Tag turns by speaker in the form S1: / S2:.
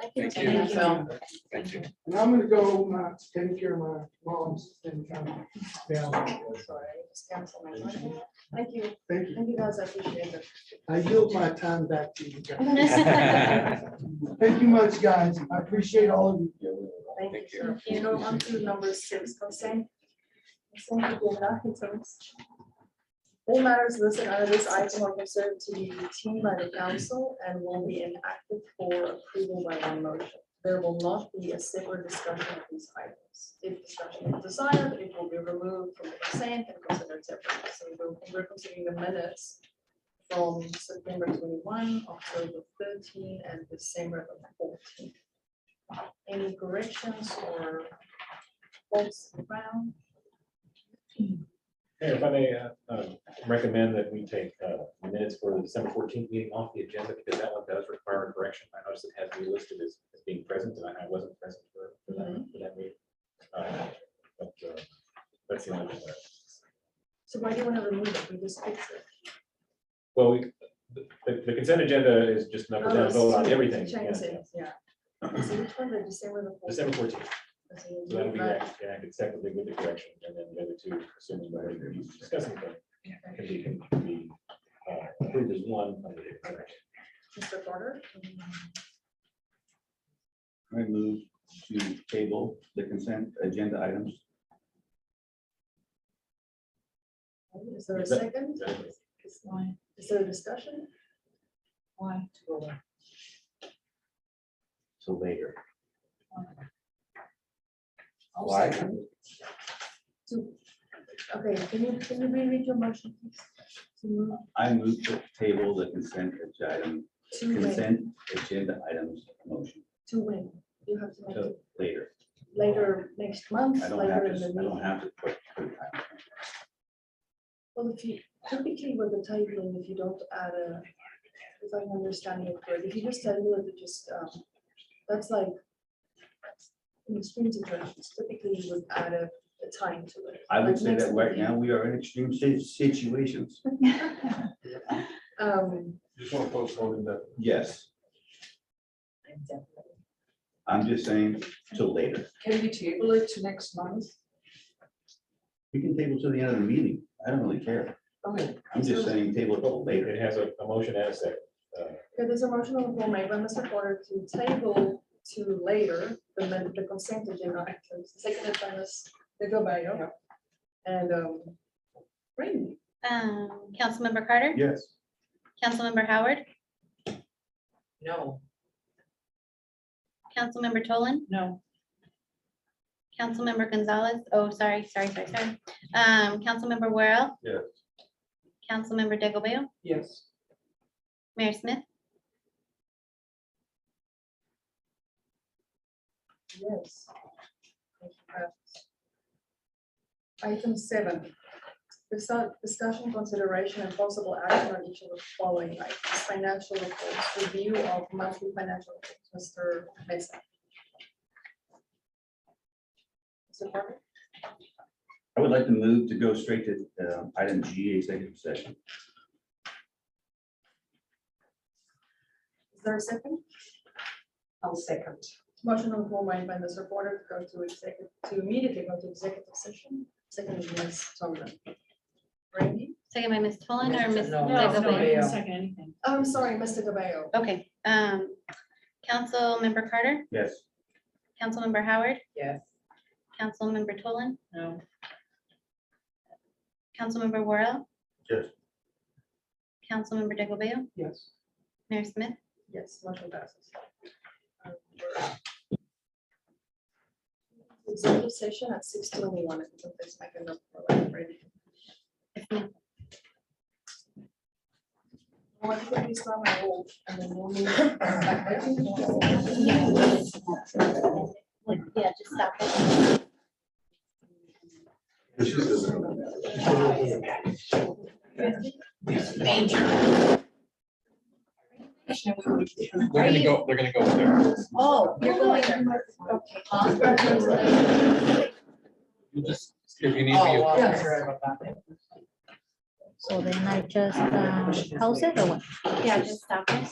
S1: Thank you.
S2: Thank you.
S1: Thank you.
S3: And I'm gonna go uh, take care of my mom's and come down.
S4: Sorry, I just canceled my motion. Thank you,
S3: Thank you.
S4: thank you guys, I appreciate it.
S3: I yield my time back to you guys. Thank you much, guys. I appreciate all of you.
S4: Thank you,
S1: Thank you.
S4: sir. You know, on to number six, consent. Consent agenda items. All matters listed under this item are considered to be routine by the council and will be enacted for approval by one motion. There will not be a separate discussion of these items. If discussion is desired, it will be removed from the consent and considered separately. So we're- we're considering the minutes from September twenty-one, October thirteen, and December the fourteen any corrections or folks around?
S5: Hey, If I may uh, um, recommend that we take uh, minutes for the December fourteenth meeting off the agenda because that one does require a correction. I noticed it has to be listed as as being present and I wasn't present for for
S4: Mm-hmm.
S5: that for that meeting. Uh, but, uh, That's the only uh, thing. that-
S4: So why do you want to remove it? We just fix it.
S5: Well, we- the the consent agenda is just number
S4: Oh,
S5: down, vote on
S4: so
S5: everything.
S4: Change
S5: yeah,
S4: it, yeah. So which one did you say were the?
S5: yeah.
S4: four?
S5: December fourteenth,
S4: So you
S5: so that'll be
S4: move that.
S5: act- acted separately with the correction and then the other two, assuming we're discussing them, can be can be uh, approved as one under the correction.
S4: Mr. Porter?
S6: I move to table the consent agenda items.
S4: Is there a
S5: Is that-
S4: second?
S5: Exactly.
S2: Why,
S4: Is there a discussion?
S2: why?
S6: So later.
S2: I'll
S6: Why?
S2: second.
S4: To- Okay, can you, can you reread your motion? please? To move
S6: I move to table the consent agenda, item-
S4: to when,
S6: consent agenda items motion
S4: to when? You have to make
S6: to
S4: it
S6: later.
S4: later next month,
S6: I don't have
S4: later in
S6: to,
S4: the
S6: I
S4: meeting.
S6: don't have to put. put time.
S4: Well, if you, typically with the tabling, if you don't add a, if I'm understanding it correctly, if you just table it, it just, um, that's like in extreme situations, typically you would add a, a time to it.
S6: I would
S4: like
S6: say
S4: next
S6: that right
S4: meeting.
S6: now, we are in extreme si- situations.
S4: Um,
S1: Just want to postpone that.
S6: Yes,
S2: Can
S6: I'm just saying till later.
S2: we table it to next month?
S6: We can table till the end of the meeting. I don't really care.
S2: Okay.
S6: I'm just saying table till later.
S5: It has a, a motion and a second. Uh,
S4: okay, there's a motion on the floor made by Mr. Porter to table to later, the, men- the consent agenda items, seconded by Ms. Goodbye. And, um, Randy,
S7: Um, Councilmember Carter,
S6: Yes.
S7: Councilmember Howard,
S2: No.
S7: Councilmember Tolan,
S2: No.
S7: Councilmember Gonzalez, oh, sorry, sorry, sorry, sorry. Um, Councilmember Worrell.
S1: Yes.
S7: Councilmember Digglebale,
S3: Yes.
S7: Mayor Smith,
S4: Yes. Item seven, discuss- discussion, consideration, and possible action on each of the following items, financial reports, review of monthly financial, reports. Mr. Mesa. Mr. Parker?
S6: I would like to move to go straight to uh, item G, executive session.
S4: Is there a second?
S2: I'll second.
S4: Motion on the floor made by Mr. Porter to go to executive, to immediately go to executive session, second by Ms. Tomlin. Randy?
S7: second by Ms. Tolan or Ms.
S2: No, no,
S7: Digglebale.
S2: didn't second anything.
S4: Oh, I'm sorry, Mr. Gabayo.
S7: Okay, um, Councilmember Carter,
S6: Yes.
S7: Councilmember Howard,
S2: Yes.
S7: Councilmember Tolan,
S2: No.
S7: Councilmember Worrell.
S6: Yes.
S7: Councilmember Digglebale,
S3: Yes.
S7: Mayor Smith.
S4: Yes, motion passes. Um, we're out. Executive session at six twenty-one, I think that's my kind of, ready. What if we start my hold and then we'll move back there?
S7: Yeah, just stop it.
S1: They're gonna go, they're gonna go with their.
S4: Oh, you're going there. Okay.
S1: You just, if you need
S2: Oh,
S1: me.
S4: Yes.
S8: So then I um, just uh, pause it or what?
S7: Yeah, just stop it.